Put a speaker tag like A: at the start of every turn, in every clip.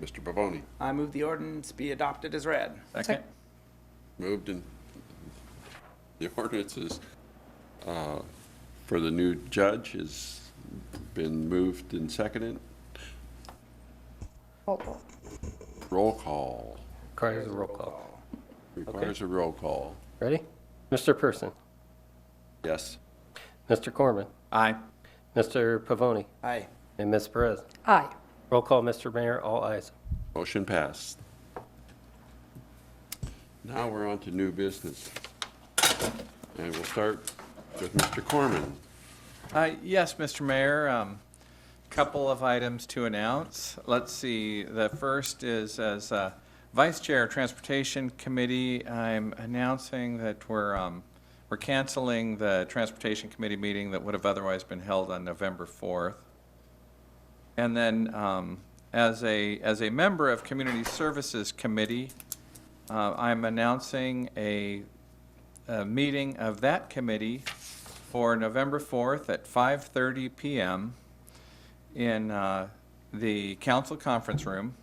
A: Mr. Pavoni.
B: I move the ordinance be adopted as read.
C: Second.
A: Moved and the ordinance is, uh, for the new judge has been moved and seconded.
D: Roll call.
A: Roll call.
E: Requires a roll call.
A: Requires a roll call.
E: Ready? Mr. Person,
A: Yes.
E: Mr. Corman,
C: Aye.
E: Mr. Pavoni,
B: Aye.
E: and Ms. Perez.
D: Aye.
E: Roll call, Mr. Mayor, all ayes.
A: Motion passed. Now we're on to new business. And we'll start with Mr. Corman.
C: Uh, Yes, Mr. Mayor, um, couple of items to announce. Let's see, the first is as uh, Vice Chair of Transportation Committee, I'm announcing that we're, um, we're canceling the Transportation Committee meeting that would have otherwise been held on November 4th. And then, um, as a, as a member of Community Services Committee, uh, I'm announcing a a meeting of that committee for November 4th at 5:30 PM in uh, the council conference room.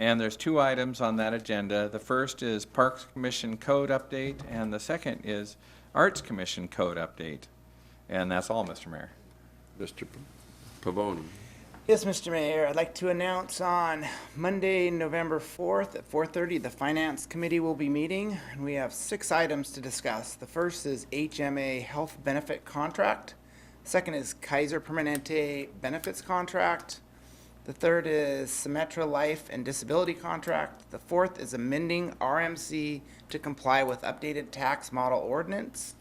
C: And there's two items on that agenda. The first is Parks Commission Code Update, and the second is Arts Commission Code Update. And that's all, Mr. Mayor.
A: Mr. Pavoni.
B: Yes, Mr. Mayor, I'd like to announce on Monday, November 4th at 4:30, the Finance Committee will be meeting, and we have six items to discuss. The first is HMA Health Benefit Contract. Second is Kaiser Permanente Benefits Contract. The third is Symetra Life and Disability Contract. The fourth is amending RMC to comply with updated tax model ordinance.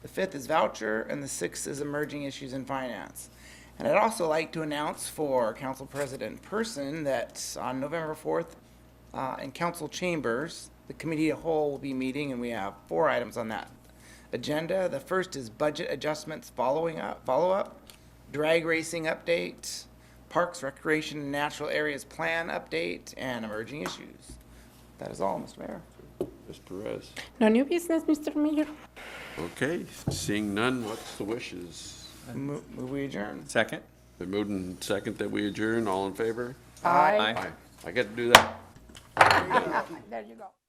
B: The fifth is voucher, and the sixth is emerging issues in finance. And I'd also like to announce for Council President Person that on November 4th, uh, in council chambers, the committee of whole will be meeting, and we have four items on that agenda. The first is budget adjustments following up, follow-up, drag racing update, parks, recreation, and natural areas plan update, and emerging issues. That is all, Mr. Mayor.
A: Ms. Perez.
D: No new business, Mr. Mayor?
A: Okay, seeing none, what's the wishes?
B: Mo- Move we adjourn.
C: Second?
A: The moved and second that we adjourn, all in favor?
D: Aye.
A: I get to do that.
D: There you go.